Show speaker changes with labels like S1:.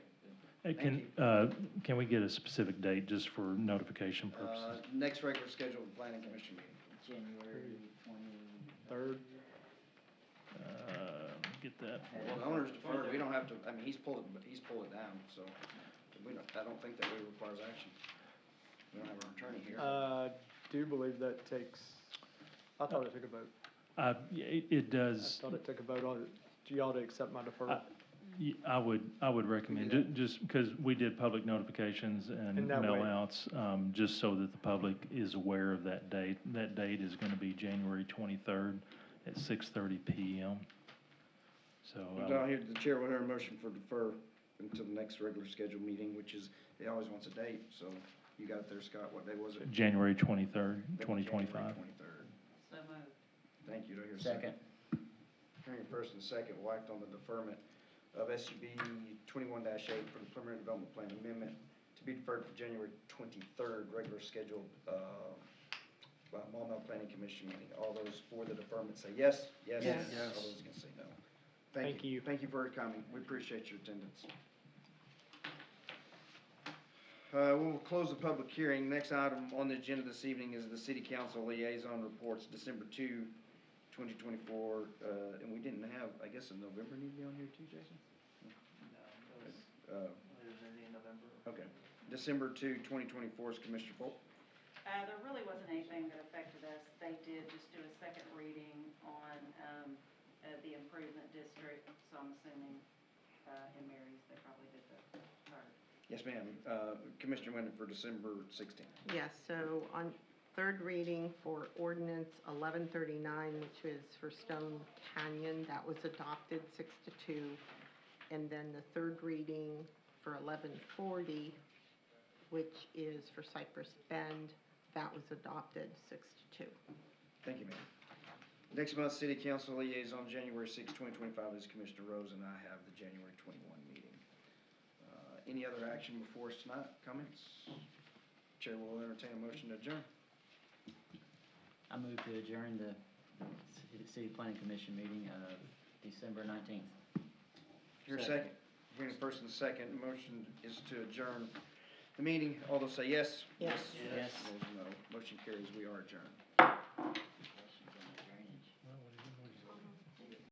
S1: Hey, Can, uh, can we get a specific date just for notification
S2: Uh,
S1: purposes?
S2: Next regular scheduled planning commission meeting.
S3: January
S1: Third?
S3: twenty-third.
S1: Uh, Get that.
S2: Well, the owner's deferred, we don't have to, I mean, he's pulled it, he's pulled it down, so we don't, I don't think that really requires action. We don't have our attorney
S1: Uh,
S2: here.
S4: I uh, do believe that takes, I thought it took a vote.
S1: Uh, yeah, It it
S4: I
S1: does,
S4: thought it took a vote on, it. do y'all to accept my
S1: I
S4: deferral?
S1: y- I would, I would recommend, ju- just because we did public notifications and
S4: In that way.
S1: mail-outs, um, just so that the public is aware of that date. That date is going to be January 23rd at 6:30 PM. So. um,
S2: Down here, the chair will hear a motion for defer until the next regular scheduled meeting, which is, he always wants a date, so you got there, Scott, what day was it?
S1: January 23rd, 2025.
S2: Twenty-third.
S3: So moved.
S2: Thank you, do I hear a second? Hearing first and second, will act on the deferment of SUB twenty-one eight for the preliminary development plan amendment to be deferred for January twenty-third, regular scheduled, uh, by Maumelle Planning Commission meeting. All those for the deferment say yes, yes,
S3: Yes.
S2: yes. All those against say no.
S4: Thank you.
S2: Thank you for coming. We appreciate your attendance. Uh, we'll close the public hearing. Next item on the agenda this evening is the city council liaison reports, December two, twenty twenty-four. Uh, and we didn't have, I guess, a November need to be on here too, Jason?
S3: No, it was,
S2: Uh,
S3: it was early in November.
S2: okay. December two, twenty twenty-four is Commissioner Polk.
S5: Uh, there really wasn't anything that affected us. They did just do a second reading on, um, uh, the improvement district, so I'm assuming, uh, in Mary's, they probably did the third.
S2: Yes, ma'am. Uh, Commissioner Wendell for December sixteenth.
S6: Yes, so on third reading for ordinance 1139, which is for Stone Canyon, that was adopted six to two. And then the third reading for 1140, which is for Cypress Bend, that was adopted six to two.
S2: Thank you, ma'am. Next month's city council liaison, January sixth, twenty twenty-five, is Commissioner Rose, and I have the January twenty-one meeting. Uh, Any other action before us tonight? Comments? Chair will entertain a motion to adjourn.
S3: I move to adjourn the ci- city planning commission meeting of December nineteenth.
S2: Here a
S3: Second.
S2: second. Hearing a first and a second, motion is to adjourn the meeting. All those say yes?
S6: Yes.
S3: Yes.
S2: Those no. Motion carries. We are adjourned.